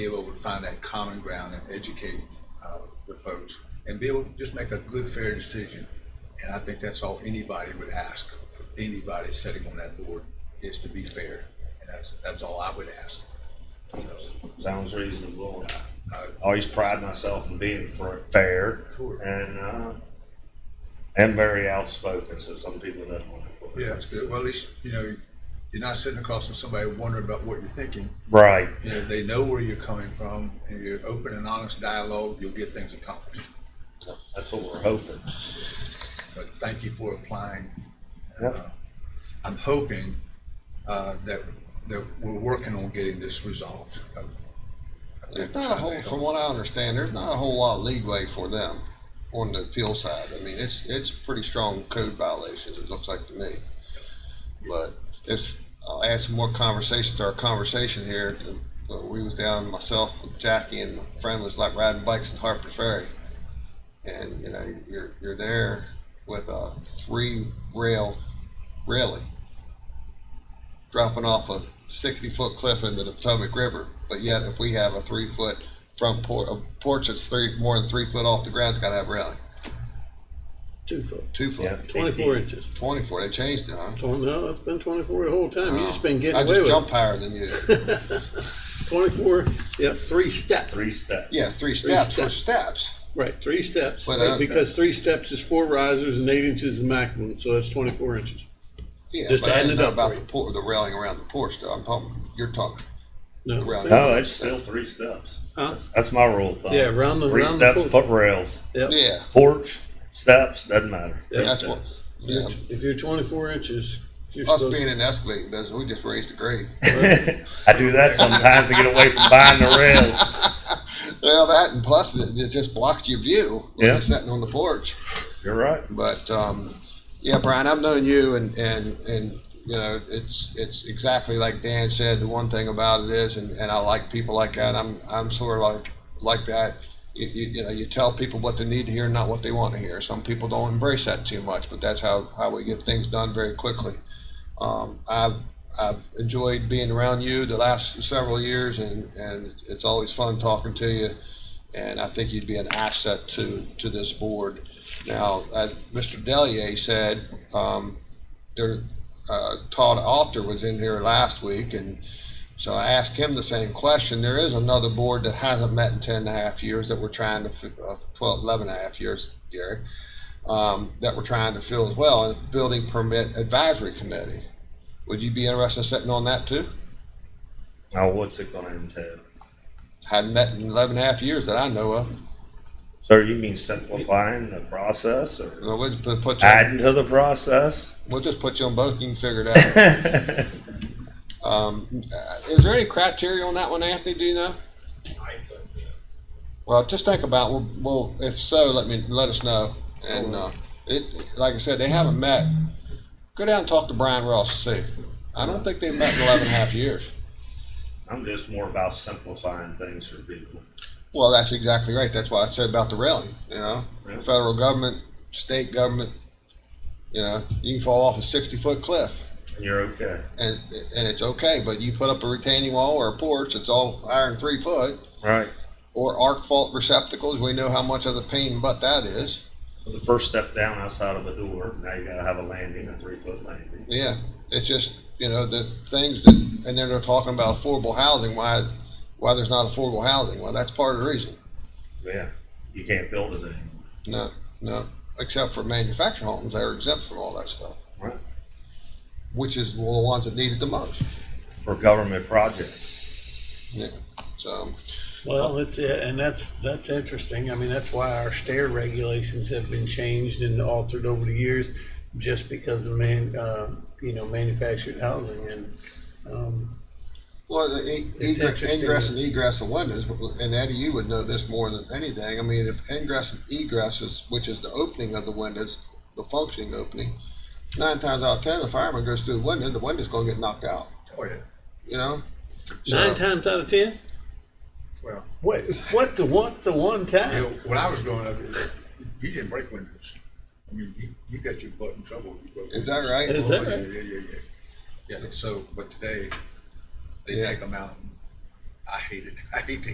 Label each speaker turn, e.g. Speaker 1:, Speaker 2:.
Speaker 1: be able to find that common ground and educate uh, the folks and be able to just make a good, fair decision. And I think that's all anybody would ask, of anybody sitting on that board, is to be fair. And that's, that's all I would ask.
Speaker 2: Sounds reasonable.
Speaker 1: uh,
Speaker 2: I Always pride myself in being fr- fair.
Speaker 1: Sure.
Speaker 2: And, uh, and very outspoken, so some people don't want to.
Speaker 1: Yeah, that's good. Well, at least, you know, you're not sitting across from somebody wondering about what you're thinking.
Speaker 2: Right,
Speaker 1: You know, they know where you're coming from and you're open and honest dialogue, you'll get things accomplished.
Speaker 2: that's what we're hoping.
Speaker 1: But thank you for applying.
Speaker 2: Yep.
Speaker 1: Uh, I'm hoping uh, that, that we're working on getting this resolved. Oh, I've- I've been
Speaker 3: There's not a
Speaker 1: trying to
Speaker 3: whole,
Speaker 1: help.
Speaker 3: from what I understand, there's not a whole lot of leeway for them on the appeal side. I mean, it's, it's pretty strong code violations, it looks like to me. But it's, I'll add some more conversation to our conversation here. But We was down, myself, Jackie and my friend was like riding bikes in Harper Ferry. And, you know, you're, you're there with a three rail railing dropping off a 60 foot cliff into the Potomac River. But yet, if we have a three foot front porch, a porch that's three more than three foot off the ground, it's got to have railing.
Speaker 4: Two foot,
Speaker 3: Two foot,
Speaker 2: Yeah.
Speaker 4: twenty-four inches.
Speaker 3: 24. They changed it, huh?
Speaker 4: Twen- No, it's been twenty-four the whole time. You just been
Speaker 3: Oh. I
Speaker 4: getting away
Speaker 3: just
Speaker 4: with
Speaker 3: jump
Speaker 4: it.
Speaker 3: higher than you.
Speaker 4: Twenty-four, yep, three steps.
Speaker 2: Three steps.
Speaker 3: Yeah, three steps for
Speaker 4: steps.
Speaker 3: steps.
Speaker 4: Right, three steps.
Speaker 3: But, uh,
Speaker 4: Because three steps is four risers and eight inches is the maximum, so that's twenty-four inches.
Speaker 3: Yeah,
Speaker 4: Just
Speaker 3: but I
Speaker 4: adding
Speaker 3: didn't
Speaker 4: it
Speaker 3: know
Speaker 4: up
Speaker 3: about
Speaker 4: for
Speaker 3: the,
Speaker 4: you.
Speaker 3: por- the railing around the porch. Though. I'm talking. You're talking.
Speaker 4: No,
Speaker 3: Right.
Speaker 4: see?
Speaker 2: No, it's still three steps.
Speaker 4: Huh?
Speaker 2: That's my rule of thumb.
Speaker 4: Yeah, round the-
Speaker 2: Three
Speaker 4: round the
Speaker 2: steps,
Speaker 4: porch.
Speaker 2: put rails,
Speaker 4: Yep.
Speaker 3: Yeah,
Speaker 2: porch, steps, doesn't matter. Three
Speaker 4: That's
Speaker 3: what-
Speaker 2: steps.
Speaker 3: yeah.
Speaker 4: If you're twenty-four inches, you're
Speaker 3: Us
Speaker 4: supposed
Speaker 3: being
Speaker 4: to.
Speaker 3: in the excavating business, we just raised the grade.
Speaker 2: I do that sometimes to get away from buying the rails.
Speaker 3: well, that and plus it, it just blocks your view. when
Speaker 2: Yeah.
Speaker 3: you're sitting on the porch.
Speaker 2: You're right.
Speaker 3: But um, yeah, Brian, I've known you, and and and you know, it's it's exactly like Dan said. The one thing about it is, and, and I like people like that. I'm I'm sort of like like that. You, you, you know, you tell people what they need to hear, not what they want to hear. Some people don't embrace that too much, but that's how, how we get things done very quickly. Um, I've I've enjoyed being around you the last several years, and, and it's always fun talking to you. And I think you'd be an asset to to this board. Now, as Mr. Delier said, um, there, uh, Todd Alter was in here last week, and so I asked him the same question. There is another board that hasn't met in ten and a half years that we're trying to, fi- uh, twelve, eleven and a half years, Gary, um, that we're trying to fill as well, and it's Building Permit Advisory Committee. Would you be interested in sitting on that too?
Speaker 2: Now, what's it gonna entail?
Speaker 3: Hadn't met in eleven and a half years that I know of.
Speaker 2: So you mean simplifying the process or
Speaker 3: We'll just put- put you,
Speaker 2: adding to the process?
Speaker 3: we'll just put you on both, and you can figure it out. Um, uh, is there any criteria on that one, Anthony? Do you know? Well, just think about. Well, well if so, let me let us know. And uh, it, like I said, they haven't met. Go down and talk to Brian Ross. and See, I don't think they've met in 11 and a half years.
Speaker 2: I'm just more about simplifying things for people.
Speaker 3: Well, that's exactly right. That's what I said about the railing. You know,
Speaker 2: Yeah.
Speaker 3: federal government, state government. You know, you can fall off a 60 foot cliff.
Speaker 2: And you're okay.
Speaker 3: And, and it's okay, but you put up a retaining wall or a porch, it's all iron three foot.
Speaker 2: Right.
Speaker 3: or arc fault receptacles. We know how much of the pain in the butt that is.
Speaker 2: The first step down outside of a door, now you gotta have a landing, a three foot landing.
Speaker 3: Yeah, it's just you know the things that, and then they're talking about affordable housing. Why, why there's not affordable housing? Well, that's part of the reason.
Speaker 2: Yeah. You can't build it anymore.
Speaker 3: No, no, except for manufactured homes, they're exempt from all that stuff,
Speaker 2: Right.
Speaker 3: which is one of the ones that need it the most.
Speaker 2: For government projects.
Speaker 3: Yeah, so
Speaker 4: Well, it's, uh, and that's, that's interesting. I mean, that's why our stair regulations have been changed and altered over the years, just because of man, uh, you know, manufactured housing and, um,
Speaker 3: well, the e-
Speaker 4: It's
Speaker 3: egress,
Speaker 4: interesting.
Speaker 3: ingress and egress of windows, and Eddie, you would know this more than anything. I mean, if ingress and egress is, which is the opening of the windows, the functioning opening. nine times out of ten, the fireman goes through the window, the window's gonna get knocked out.
Speaker 1: Oh, yeah.
Speaker 3: You know. So,
Speaker 4: nine times out of ten?
Speaker 1: Well,
Speaker 4: What, what the, what's the one
Speaker 1: you know,
Speaker 4: time?
Speaker 1: when I was growing up, you didn't break windows. I mean, you, you got your butt in trouble. if you broke
Speaker 3: Is that
Speaker 1: windows.
Speaker 3: right?
Speaker 4: Is that
Speaker 1: Oh, yeah,
Speaker 4: right?
Speaker 1: Yeah, yeah, yeah. Yeah, so, but today, they
Speaker 3: Yeah.
Speaker 1: take them out. and I hate it. I hate to